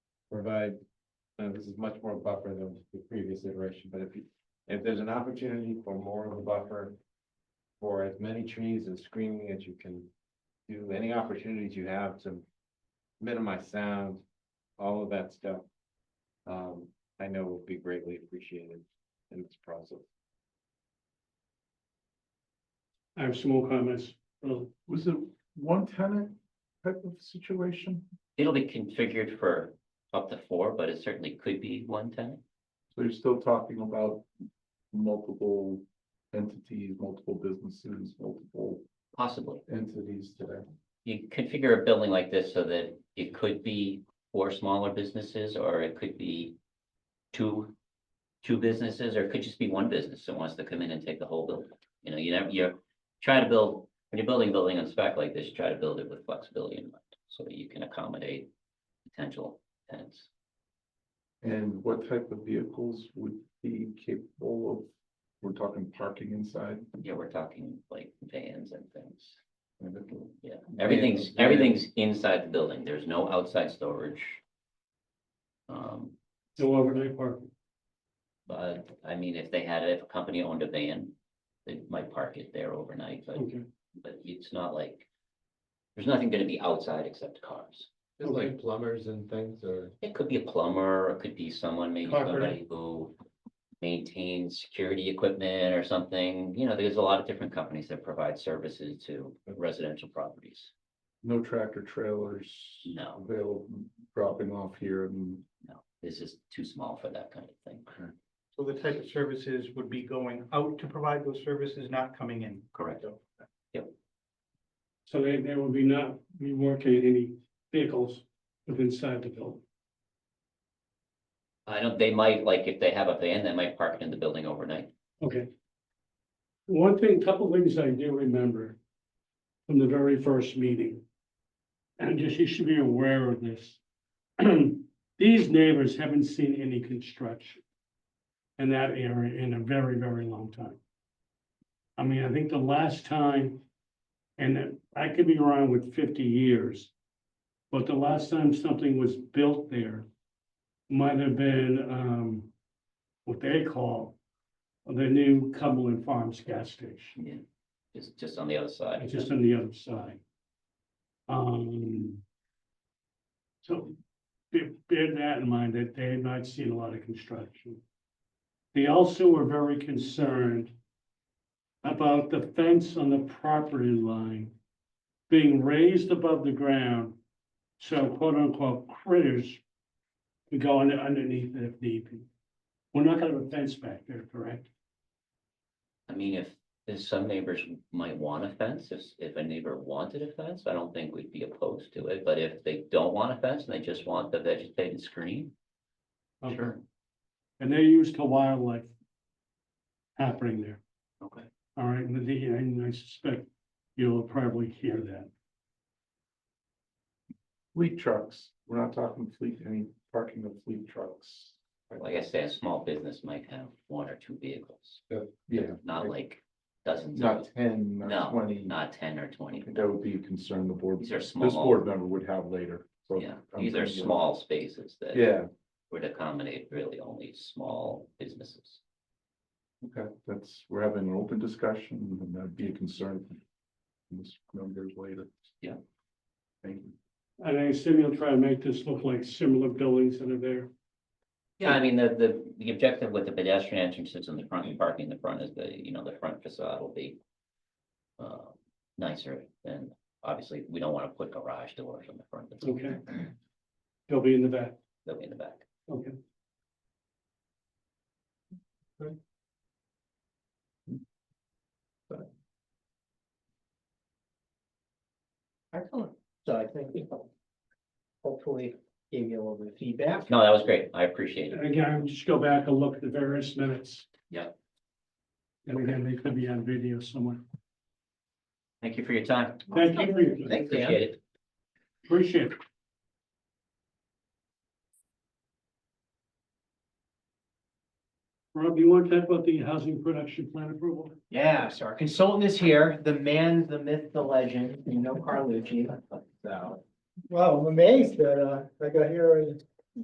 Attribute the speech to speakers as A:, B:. A: provide, now this is much more buffer than the previous iteration, but if you, if there's an opportunity for more of a buffer. For as many trees and screening as you can do, any opportunities you have to minimize sound, all of that stuff. Um, I know will be greatly appreciated in this process.
B: I have some more comments. Well,
C: Was it one tenant type of situation?
D: It'll be configured for up to four, but it certainly could be one tenant.
C: So you're still talking about multiple entities, multiple businesses, multiple
D: possibly.
C: entities today?
D: You configure a building like this so that it could be four smaller businesses, or it could be two, two businesses, or it could just be one business that wants to come in and take the whole building. You know, you never, you're trying to build, when you're building a building on spec like this, you try to build it with flexibility in mind, so that you can accommodate potential tenants.
C: And what type of vehicles would be capable of, we're talking parking inside?
D: Yeah, we're talking like vans and things. Yeah,
C: Yeah,
D: everything's,
C: yeah.
D: everything's inside the building. There's no outside storage. Um,
B: no overnight parking.
D: but I mean, if they had, if a company owned a van, they might park it there overnight, but,
B: Okay,
D: but it's not like. There's nothing gonna be outside except cars.
B: Just like
A: plumbers and things or.
D: It could be a plumber, or it could be someone, maybe
B: Carpenter.
D: somebody who. Maintains security equipment or something. You know, there's a lot of different companies that provide services to residential properties.
C: No tractor trailers
D: No,
C: available, dropping off here and.
D: no, this is too small for that kind of thing.
E: So the type of services would be going out to provide those services, not coming in.
D: Correct.
B: so they, they will be not be working any vehicles within inside the building.
D: I don't, they might, like, if they have a van, they might park it in the building overnight.
B: Okay. One thing, couple things I do remember from the very first meeting. And just, you should be aware of this. These neighbors haven't seen any construction in that area in a very, very long time. I mean, I think the last time, and I could be wrong with fifty years, but the last time something was built there might have been, um, what they call the new Cumberland Farms gas station,
D: Yeah. Just, just on the other side.
B: it's just on the other side. Um. So, bear, bear that in mind, that they had not seen a lot of construction. They also were very concerned about the fence on the property line being raised above the ground, so quote unquote critters could go under- underneath it if need be. We're not gonna have a fence back there, correct?
D: I mean, if, if some neighbors might want a fence, if, if a neighbor wanted a fence, I don't think we'd be opposed to it, but if they don't want a fence and they just want the vegetated screen, sure.
B: And they're used to wildlife happening there,
D: Okay.
B: all right, and the, and I suspect you'll probably hear that.
C: Fleet trucks, we're not talking fleet, any parking of fleet trucks.
D: Like I said, a small business might have one or two vehicles,
C: Yeah,
D: not like dozens
C: not
D: of,
C: ten,
D: No,
C: not twenty.
D: not ten or twenty.
C: I think That would be a concern the board,
D: These are
C: this
D: small,
C: board member would have later. so
D: yeah,
C: I'm
D: these are
C: thinking-
D: small spaces that
C: Yeah,
D: would accommodate really only small businesses.
C: okay, that's, we're having an open discussion and that'd be a concern. for This members later.
D: Yeah.
C: Thank you.
B: And I assume you'll try to make this look like similar buildings that are there.
D: Yeah, I mean, the, the, the objective with the pedestrian entrances in the front and parking in the front is the, you know, the front facade will be. Uh, nicer and obviously we don't wanna put garage doors on the front. of the building.
B: They'll be in the back,
D: They'll be in the back.
B: okay.
F: Excellent. So I think we hopefully gave you a little bit of feedback.
D: No, that was great. I appreciate it.
B: And again, I'll just go back and look at the various minutes.
D: Yep.
B: And again, they could be on video somewhere.
D: Thank you for your time.
B: Thank you for your,
F: Thank you.
D: Appreciate it.
B: appreciate it. Rob, you want to talk about the housing production plan approval?
F: Yeah, so our consultant is here, the man, the myth, the legend, you know Carlucci, so. Wow, I'm amazed that, uh, I got here in